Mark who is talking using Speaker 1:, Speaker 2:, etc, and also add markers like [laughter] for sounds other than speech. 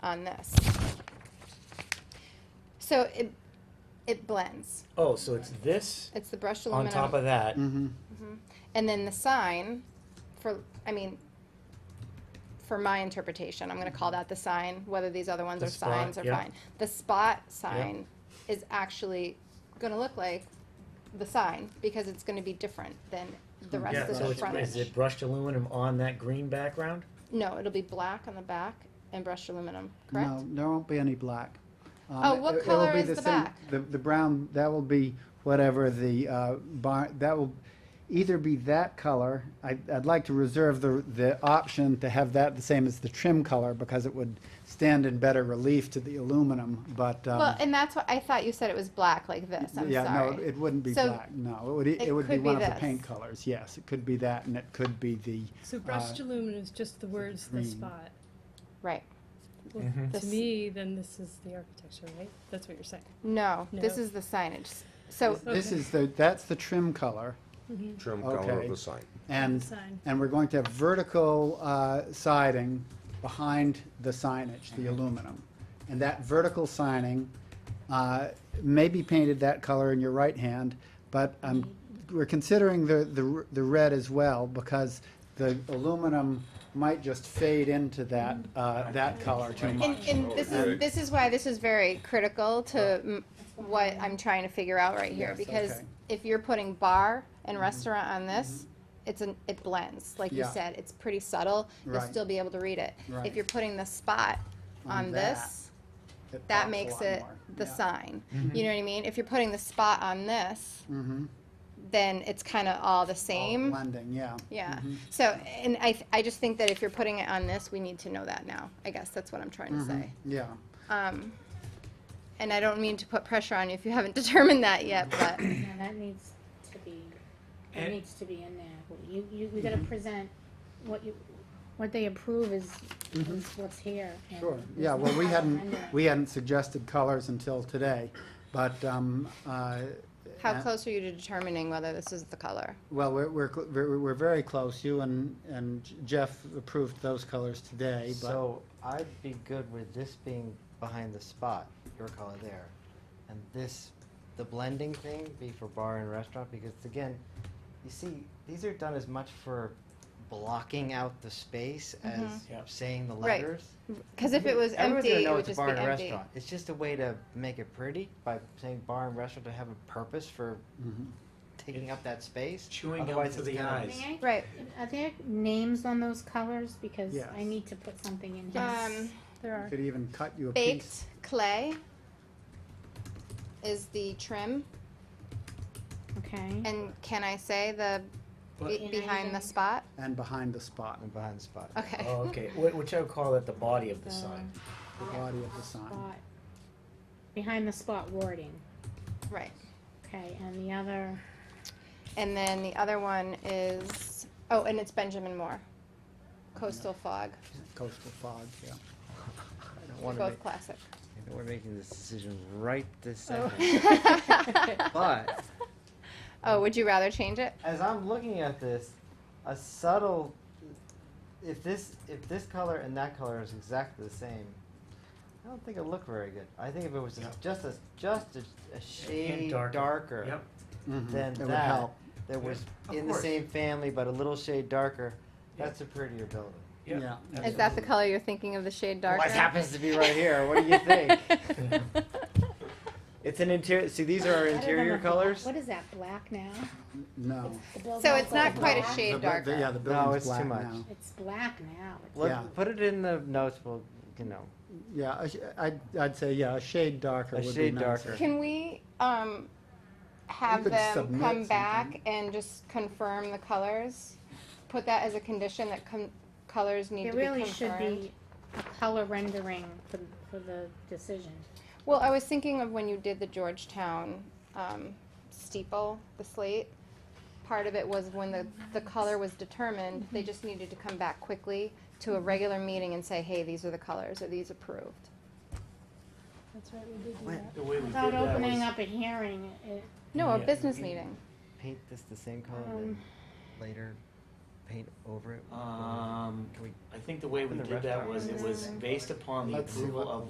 Speaker 1: on this. So it, it blends.
Speaker 2: Oh, so it's this
Speaker 1: It's the brushed
Speaker 2: on
Speaker 1: aluminum.
Speaker 2: top of that.
Speaker 3: Mm.
Speaker 4: Mm-hmm.
Speaker 1: And then the sign for, I mean, for my interpretation, I'm gonna call that the sign, whether these other ones
Speaker 2: The
Speaker 1: are
Speaker 2: spot,
Speaker 1: signs are
Speaker 2: yeah.
Speaker 1: fine. The spot sign is actually gonna look like the sign because it's gonna be different than the
Speaker 2: Yeah,
Speaker 1: rest
Speaker 2: so
Speaker 1: of the
Speaker 2: it's,
Speaker 1: front.
Speaker 2: is it brushed aluminum on that green background?
Speaker 1: No, it'll be black on the back and brushed aluminum, correct?
Speaker 4: No, there won't be any black. Um,
Speaker 1: Oh, what
Speaker 4: it- it will
Speaker 1: color
Speaker 4: be
Speaker 1: is the
Speaker 4: same-
Speaker 1: back?
Speaker 4: The, the brown, that will be whatever the uh, bar, that will either be that color. I, I'd like to reserve the, the option to have that the same as the trim color because it would stand in better relief to the aluminum, but, um,
Speaker 1: Well, and that's what, I thought you said it was black like this, I'm
Speaker 4: yeah, no,
Speaker 1: sorry.
Speaker 4: it wouldn't be
Speaker 1: So
Speaker 4: black, no. It would, it
Speaker 1: it
Speaker 4: would be
Speaker 1: could be
Speaker 4: one of the
Speaker 1: this.
Speaker 4: paint colors, yes. It could be that and it could be the,
Speaker 5: So
Speaker 4: Uh,
Speaker 5: brushed aluminum is just the words, the
Speaker 4: green. Mm-hmm.
Speaker 5: spot.
Speaker 1: Right.
Speaker 5: Well,
Speaker 2: Mhm.
Speaker 1: This-
Speaker 5: To me, then this is the architecture, right? That's what you're saying.
Speaker 1: No, this
Speaker 5: No.
Speaker 1: is the signage. So
Speaker 4: this
Speaker 5: Okay.
Speaker 4: is the, that's the trim color.
Speaker 6: trim color
Speaker 4: Okay.
Speaker 6: of the sign.
Speaker 4: And,
Speaker 5: sign.
Speaker 4: and we're going to have vertical uh, siding behind the signage, the
Speaker 1: Mm-hmm.
Speaker 4: aluminum. And that vertical signing uh, may be painted that color in your right hand, but um, we're considering the, the r- the red as well because the aluminum might just fade into that, uh, that color too
Speaker 1: Mm-hmm. And,
Speaker 4: much.
Speaker 1: and this is, this is why this is very critical to m- what I'm trying to figure out right here,
Speaker 4: Yes,
Speaker 1: because
Speaker 4: okay. Mm-hmm.
Speaker 1: if you're putting bar and restaurant on this, it's an, it blends, like you
Speaker 4: Yeah.
Speaker 1: said, it's pretty subtle, you'll
Speaker 4: Right.
Speaker 1: still be able to read it.
Speaker 4: Right.
Speaker 1: If you're putting the spot
Speaker 4: On
Speaker 1: on
Speaker 4: that,
Speaker 1: this,
Speaker 4: It pops
Speaker 1: that
Speaker 4: a
Speaker 1: makes
Speaker 4: lot
Speaker 1: it
Speaker 4: more.
Speaker 1: the
Speaker 4: Yeah. Mm-hmm.
Speaker 1: sign, you know what I mean? If you're putting the spot on this, then it's kinda all the
Speaker 4: All Mm-hmm.
Speaker 1: same.
Speaker 4: blending, yeah.
Speaker 1: Yeah, so, and I, th- I just think that if you're putting it on this, we need to know that now, I guess that's what I'm trying to say.
Speaker 4: Mm-hmm. Yeah.
Speaker 7: Mm-hmm.
Speaker 1: Um, and I don't mean to put pressure on you if you haven't [laughs] determined that yet,
Speaker 7: [coughs]
Speaker 1: but
Speaker 3: Yeah, that needs to be, that
Speaker 2: And-
Speaker 3: needs to be in there. You, you, you
Speaker 7: Mm-hmm.
Speaker 3: gotta present what you, what they approve is,
Speaker 1: Mm-hmm.
Speaker 7: Mm-hmm.
Speaker 3: is what's here. and uh,
Speaker 4: Sure,
Speaker 3: there's
Speaker 4: yeah,
Speaker 3: no
Speaker 4: well, we
Speaker 3: color
Speaker 4: hadn't,
Speaker 3: under it.
Speaker 4: we hadn't suggested colors until today, but, um, uh.
Speaker 1: how
Speaker 4: and-
Speaker 1: close are you to determining whether this is the color?
Speaker 4: Well, we're, we're, cl- we're, we're very close, you and, and Jeff approved those colors today, but,
Speaker 7: So I'd be good with this being behind the spot, your color there, and this, the blending thing be for bar and restaurant, because again, you see, these are done as much for blocking out the space as
Speaker 2: Yep.
Speaker 7: saying the
Speaker 1: Mm-hmm. Right.
Speaker 7: letters.
Speaker 1: Because if it was
Speaker 7: Everyone's
Speaker 1: empty,
Speaker 7: gonna
Speaker 1: it
Speaker 7: know
Speaker 1: would
Speaker 7: it's a
Speaker 1: just
Speaker 7: bar
Speaker 1: be
Speaker 7: and
Speaker 1: empty.
Speaker 7: restaurant. It's just a way to make it pretty by saying bar and restaurant to have a purpose for
Speaker 4: mm-hmm.
Speaker 7: taking up that space.
Speaker 2: Chewing up
Speaker 7: Otherwise,
Speaker 2: to
Speaker 7: it's
Speaker 2: the
Speaker 7: kinda-
Speaker 2: eyes.
Speaker 3: May I,
Speaker 1: Right.
Speaker 3: are there names on those colors? Because I
Speaker 4: Yes.
Speaker 3: need to put something in here.
Speaker 1: Um,
Speaker 5: There are.
Speaker 4: could even cut you a piece.
Speaker 1: baked clay is the trim,
Speaker 3: Okay,
Speaker 1: and can I say the
Speaker 2: What?
Speaker 1: be- behind the spot?
Speaker 4: And behind the spot,
Speaker 7: And behind the spot.
Speaker 1: Okay.
Speaker 2: Oh, okay, Wh- which I would call it the body of the
Speaker 3: The-
Speaker 2: sign.
Speaker 4: the body of the sign.
Speaker 3: spot, behind the spot wording,
Speaker 1: [laughs] Right.
Speaker 3: okay, and the other,
Speaker 1: And then the other one is oh, and it's Benjamin Moore, Coastal Fog.
Speaker 4: Coastal fog, yeah.
Speaker 7: [laughs] I don't
Speaker 1: They're
Speaker 7: wanna make,
Speaker 1: both classic.
Speaker 7: I know we're making this decision right this
Speaker 5: Oh.
Speaker 7: second. [laughs] But
Speaker 1: [laughs] oh, would you rather change it?
Speaker 7: as I'm looking at this, a subtle if this if this color and that color is exactly the same, I don't think it would look very good. I think if it was just
Speaker 2: Yep.
Speaker 7: just a just a, a shade
Speaker 2: darker.
Speaker 7: darker,
Speaker 2: Yep.
Speaker 4: Mhm.
Speaker 7: than
Speaker 4: It
Speaker 7: that
Speaker 4: would help.
Speaker 7: that was
Speaker 2: Of
Speaker 7: in
Speaker 2: course.
Speaker 7: the same family but a little shade darker,
Speaker 2: Yep.
Speaker 7: that's a prettier building.
Speaker 2: Yep.
Speaker 4: Yeah.
Speaker 1: Is that the color you're thinking of the shade darker?
Speaker 7: What happens to be right here? What do you think? it's an interior. See, these are our
Speaker 3: I don't know
Speaker 7: interior
Speaker 3: if the-
Speaker 7: colors.
Speaker 3: What is that, black now?
Speaker 4: No.
Speaker 3: The building's
Speaker 1: So it's not
Speaker 3: all
Speaker 1: quite a
Speaker 3: black?
Speaker 1: shade
Speaker 4: The bu- the- Yeah,
Speaker 1: darker.
Speaker 4: the
Speaker 7: No,
Speaker 4: building's
Speaker 7: it's too
Speaker 4: black
Speaker 7: much.
Speaker 4: now.
Speaker 3: It's black now. It's
Speaker 7: Look,
Speaker 4: Yeah.
Speaker 7: Put it in the notes. We'll, you know.
Speaker 4: Yeah, a sh- I'd, I'd say, yeah, a shade darker
Speaker 7: A
Speaker 4: would be
Speaker 7: shade
Speaker 4: nicer.
Speaker 1: [laughs]
Speaker 7: darker.
Speaker 1: Can we, um, have
Speaker 4: could
Speaker 1: them
Speaker 4: submit
Speaker 1: come back
Speaker 4: something.
Speaker 1: and just confirm the colors? Put that as a condition that com- colors need
Speaker 3: It
Speaker 1: to be
Speaker 3: really should
Speaker 1: confirmed?
Speaker 3: be a color rendering for, for the decision.
Speaker 1: Well, I was thinking of when you did the Georgetown, um, steeple, the slate. Part of it was when the, the color was determined, they just needed to come back quickly to a regular meeting and say, hey, these are the colors, are these approved?
Speaker 5: That's right, we did do
Speaker 7: Wait.
Speaker 5: that.
Speaker 2: The way we
Speaker 3: Without
Speaker 2: did that
Speaker 3: opening
Speaker 2: was-
Speaker 3: up a hearing, it,
Speaker 1: No, a
Speaker 2: Yeah.
Speaker 1: business meeting.
Speaker 7: paint this the same color
Speaker 3: Um,
Speaker 7: then later paint over it?
Speaker 2: Um,
Speaker 7: Can we
Speaker 2: I think the way we
Speaker 7: In the
Speaker 2: did that
Speaker 7: restaurant.
Speaker 2: was, it was
Speaker 7: Mm.
Speaker 2: based upon the
Speaker 7: Let's see
Speaker 2: approval
Speaker 7: what-
Speaker 2: of